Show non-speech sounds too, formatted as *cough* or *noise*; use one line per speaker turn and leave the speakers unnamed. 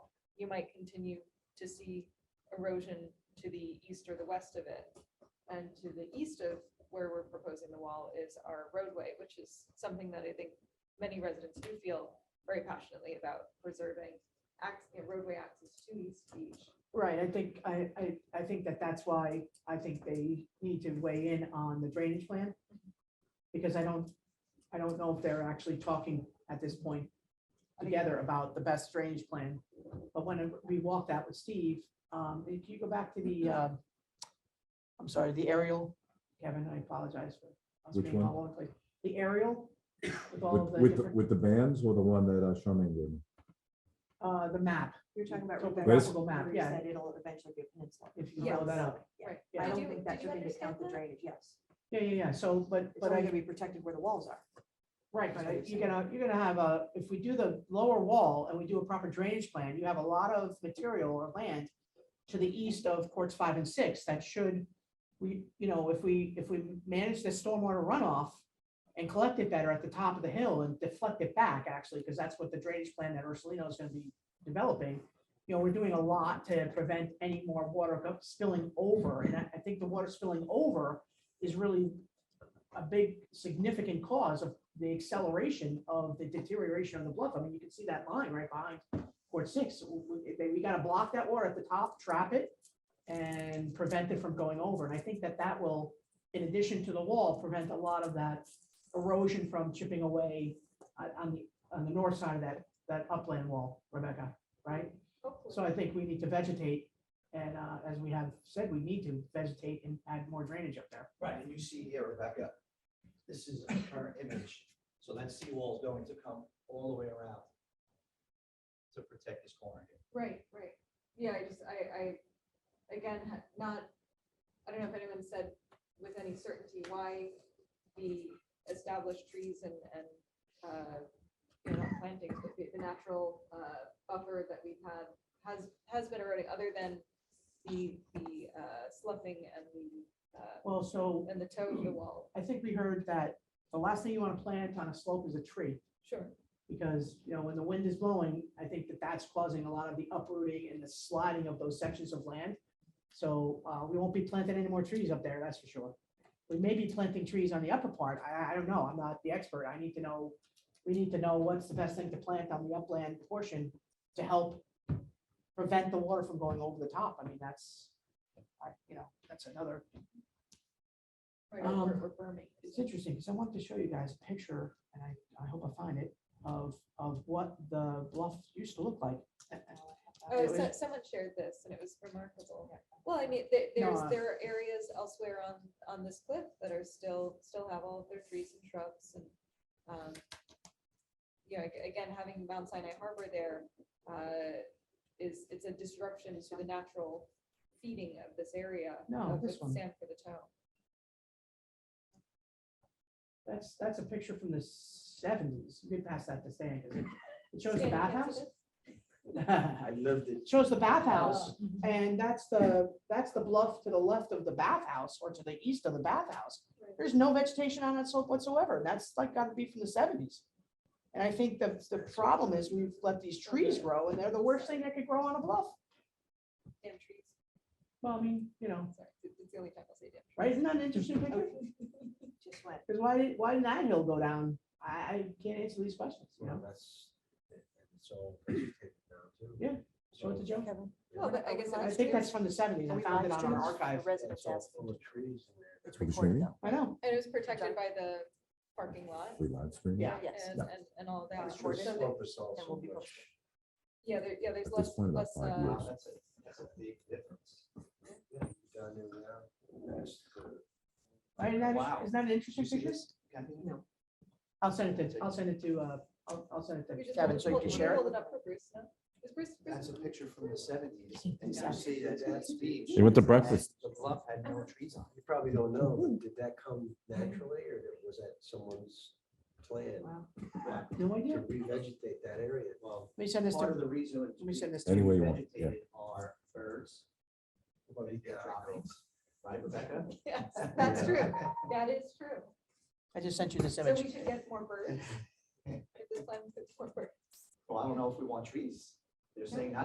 you might continue to see erosion to the east or the west of it. And to the east of where we're proposing the wall is our roadway, which is something that I think many residents do feel very passionately about preserving ac- you know, roadway access to East Beach.
Right, I think, I, I, I think that that's why I think they need to weigh in on the drainage plan. Because I don't, I don't know if they're actually talking at this point together about the best drainage plan. But when we walked out with Steve, um, if you go back to the, um, I'm sorry, the aerial, Kevin, I apologize for. us
Which
being
one?
all over the place. The aerial with all of
With,
the,
with, the-
different-
with the bands or the one that uh, Charmaine did?
uh, the map,
You're talking about.
So the
Rebecca,
graphical map,
where you
yeah.
said It'll eventually be a peninsula.
if you can follow that up.
Yeah,
Right.
I
Did
don't
you-
think that
did you
should be discount the
understand that?
drainage, yes.
Yeah, yeah, yeah, so, but,
It's
but I.
only gonna be protected where the walls are.
Right,
That's
but
what
I-
I'm
you're gonna, you're gonna have a, if we do the lower wall and we do a proper drainage plan, you have a lot of material or land to the east of courts five and six that should, we, you know, if we, if we manage the stormwater runoff and collect it better at the top of the hill and deflect it back, actually, because that's what the drainage plan that Ursulino is gonna be developing. You know, we're doing a lot to prevent any more water go- spilling over, and I, I think the water spilling over is really a big significant cause of the acceleration of the deterioration of the bluff. I mean, you can see that line right behind Port Six. W- w- they- We gotta block that water at the top, trap it, and prevent it from going over. And I think that that will, in addition to the wall, prevent a lot of that erosion from chipping away on, on the, on the north side of that, that upland wall, Rebecca, right?
Hopefully.
So I think we need to vegetate, and, uh, as we have said, we need to vegetate and add more drainage up there.
Right, and you see here, Rebecca, this is a current image, so that seawall is going to come all the way around to protect this corner *laughs* here.
Right, right. Yeah, I just, I, I, again, ha- not, I don't know if anyone said with any certainty why the established trees and, and, uh, you know, not plantings, but the, the natural, uh, buffer that we've had has, has been eroding, other than the, the, uh, sloughing and the, uh,
Well, so
and the toe of the wall.
I think we heard that the last thing you want to plant on a slope is a tree,
Sure.
because, you know, when the wind is blowing, I think that that's causing a lot of the uprooting and the sliding of those sections of land. So uh, we won't be planting any more trees up there, that's for sure. We may be planting trees on the upper part, I, I don't know, I'm not the expert, I need to know, we need to know what's the best thing to plant on the upland portion to help prevent the water from going over the top, I mean, that's, I- you know, that's another
Right, or-
Um,
or burning.
it's interesting, because I want to show you guys a picture, and I, I hope I find it, of, of what the bluff used to look like.
Oh,
It
so,
was-
someone shared this and it was remarkable. Well, I mean, there,
No,
there's,
uh,
there are areas elsewhere on, on this cliff that are still, still have all of their trees and shrubs and, um, you know, ag- again, having Mount Sinai Harbor there, uh, is, it's a disruption to the natural feeding of this area.
No,
of the
this one.
Sand for the town.
That's, that's a picture from the seventies, you can pass that to Stan, 'cause it- it shows the bathhouse. It
lived it.
Shows the bathhouse,
Oh.
and that's the, that's the bluff to the left of the bathhouse, or to the east of the bathhouse. There's no vegetation on that slope whatsoever. That's like gotta be from the seventies. And I think the, the problem is we've let these trees grow and they're the worst thing that could grow on a bluff.
Damn trees.
Well, I mean, you know,
Sorry, it's it's the only time I'll say damn.
right, isn't that an interesting picture?
Just went,
Because why did, why did that hill go down? I, I can't answer these questions, you
Well,
know?
that's, and so. Yeah.
Yeah, Show it to Joe.
Well, but I guess it
I
was
think
trees.
that's from the seventies. I found it on our archive.
It's all full of trees in there.
it's
Are we
recorded
streaming?
though.
I know.
And it was protected by the parking lot
We live stream?
Yeah.
Yes.
and, and, and all that.
It's
The
recorded.
So
slope is all
Then
so
we'll be
much-
recorded.
Yeah, there, yeah, there's
At
less,
this point, about
less,
five
uh,
Wow, That's a, that's a big difference. Yeah, down in there, that's the-
Right, isn't that,
Wow.
isn't that an interesting
You see
picture?
this? Yeah.
No,
I'll send it to, I'll send it to, uh, I'll, I'll send
we
it to
just
Kevin
hold-
so you
hold-
can
hold-
share it.
Hold it up for Bruce, no? Is Bruce,
That's a
Bruce,
picture from the seventies, and you see that that's beach.
They went to breakfast. Mm-hmm.
The bluff had no trees on it. You probably don't know, but did that come naturally, or was that someone's plan
Wow. No
to
idea.
revegetate that area? Well,
Let me send this
part of
to,
the reason.
let me send this to.
Anyway you want, yeah.
Vegetated are birds. Well, they get droppings, Right, Rebecca?
yes, *laughs* that's
*laughs*
true, that is true.
I just sent you this
So
image.
we should get more birds. If this plan puts more birds.
Well, I don't know if we want trees. They're saying not